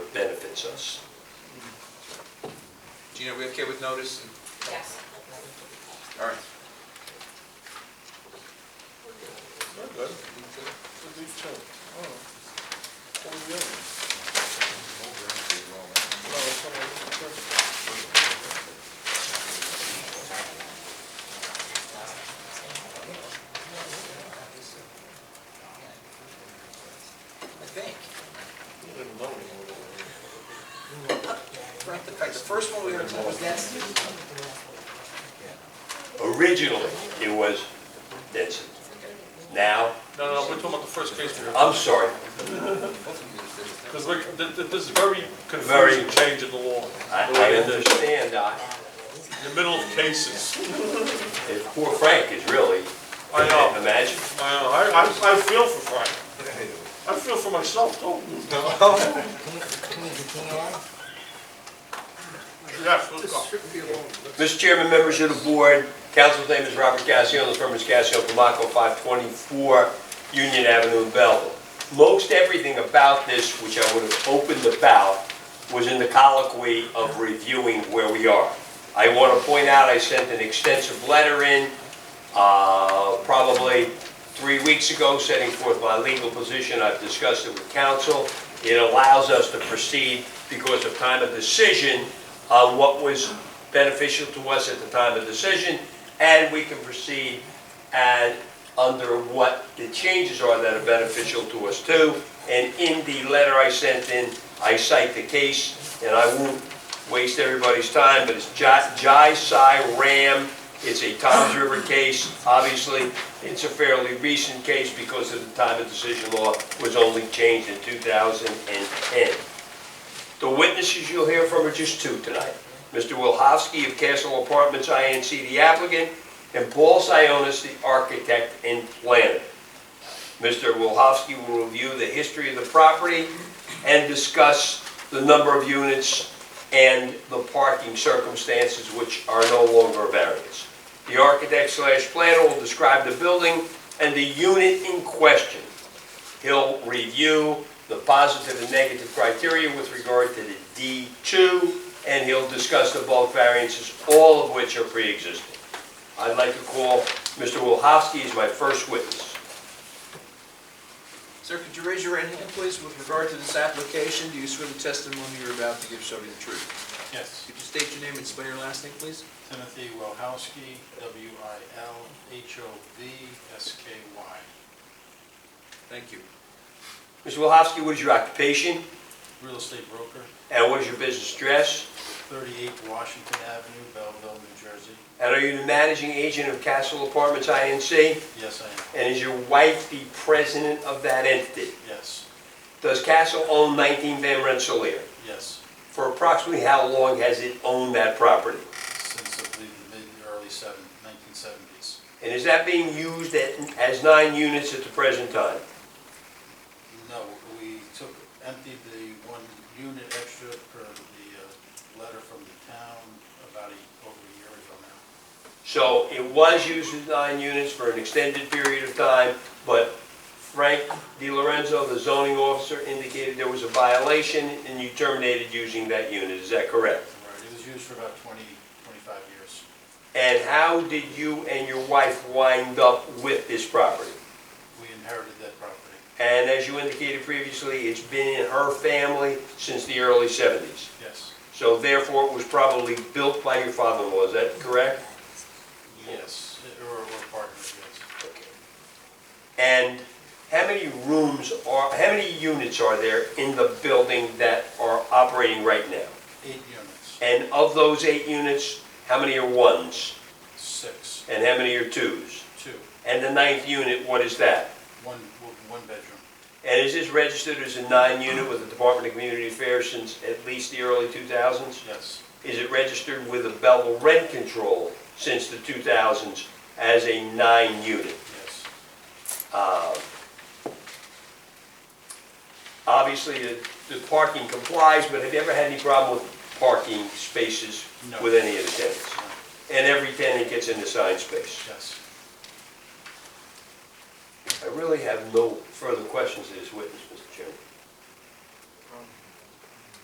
benefits us. Gina, we okay with notice? Yes. All right. Good. I think. Right, the fact- The first one we ever told was that student. Originally, it was Denson. Now, No, no, we're talking about the first case here, I'm sorry, because this is very Very. confusing change in the law. I The way I it is. understand, I- In the middle of cases. and poor Frank is really, I know. imagine. I know, uh, I, I- I feel for Frank. I feel for myself, too. Yes, let's go. Mr. Chairman, members of the board, council's name is Robert Gassio, the firm is Gassio Pomaco, 524 Union Avenue in Belleville. Most everything about this, which I would have opened about, was in the colloquy of reviewing where we are. I want to point out, I sent an extensive letter in, uh, probably three weeks ago, setting forth my legal position. I've discussed it with counsel. It allows us to proceed because of time of decision on what was beneficial to us at the time of decision, and we can proceed and under what the changes are that are beneficial to us too. And in the letter I sent in, I cite the case, and I won't waste everybody's time, but it's Jai Jai Sai Ram. It's a Tom's River case, obviously. It's a fairly recent case because of the time of decision law was only changed in 2010. The witnesses you'll hear from are just two tonight. Mr. Wilhowsky of Castle Apartments INC, the applicant, and Paul Sionis, the architect and planner. Mr. Wilhowsky will review the history of the property and discuss the number of units and the parking circumstances which are no longer a variance. The architect slash planner will describe the building and the unit in question. He'll review the positive and negative criteria with regard to the D2, and he'll discuss the bulk variances, all of which are pre-existing. I'd like to call Mr. Wilhowsky as my first witness. Sir, could you raise your right hand, please, with regard to this application? Do you swear the testimony you're about to give shall be the truth? Yes, Could you state your name and spell your last name, please? Timothy Wilhowsky, W-I-L-H-O-V-S-K-Y. Thank you. Mr. Wilhowsky, what is your occupation, Real estate broker, and what is your business address? 38 Washington Avenue, Belleville, New Jersey. And are you the managing agent of Castle Apartments INC? Yes, I am. And is your wife the president of that entity? Yes, Does Castle own 19 Van Rensselaer? yes, For approximately how long has it owned that property? since I believe the mid, early seven- 1970s. And is that being used at- as nine units at the present time? No, we took, emptied the one unit extra per the uh, letter from the town about a, over a year ago now. So it was used as nine units for an extended period of time, but Frank Di Lorenzo, the zoning officer, indicated there was a violation and you terminated using that unit, is that correct? Right, it was used for about 20, 25 years. And how did you and your wife wind up with this property? We inherited that property. And as you indicated previously, it's been in her family since the early 70s. Yes, So therefore, it was probably built by your father-in-law, is that correct? yes, or, or partners, yes. And how many rooms are, how many units are there in the building that are operating right now? Eight units, And of those eight units, how many are ones? six, And how many are twos? two, And the ninth unit, what is that? one, one bedroom. And is this registered as a nine-unit with the Department of Community Affairs since at least the early 2000s? Yes, Is it registered with the Belleville Rent Control since the 2000s as a nine-unit? yes, Uh, Obviously, the the parking complies, but have you ever had any problem with parking spaces No. with any of the tenants? no, And every tenant gets an assigned space? yes. I really have no further questions to this witness, Mr. Chairman.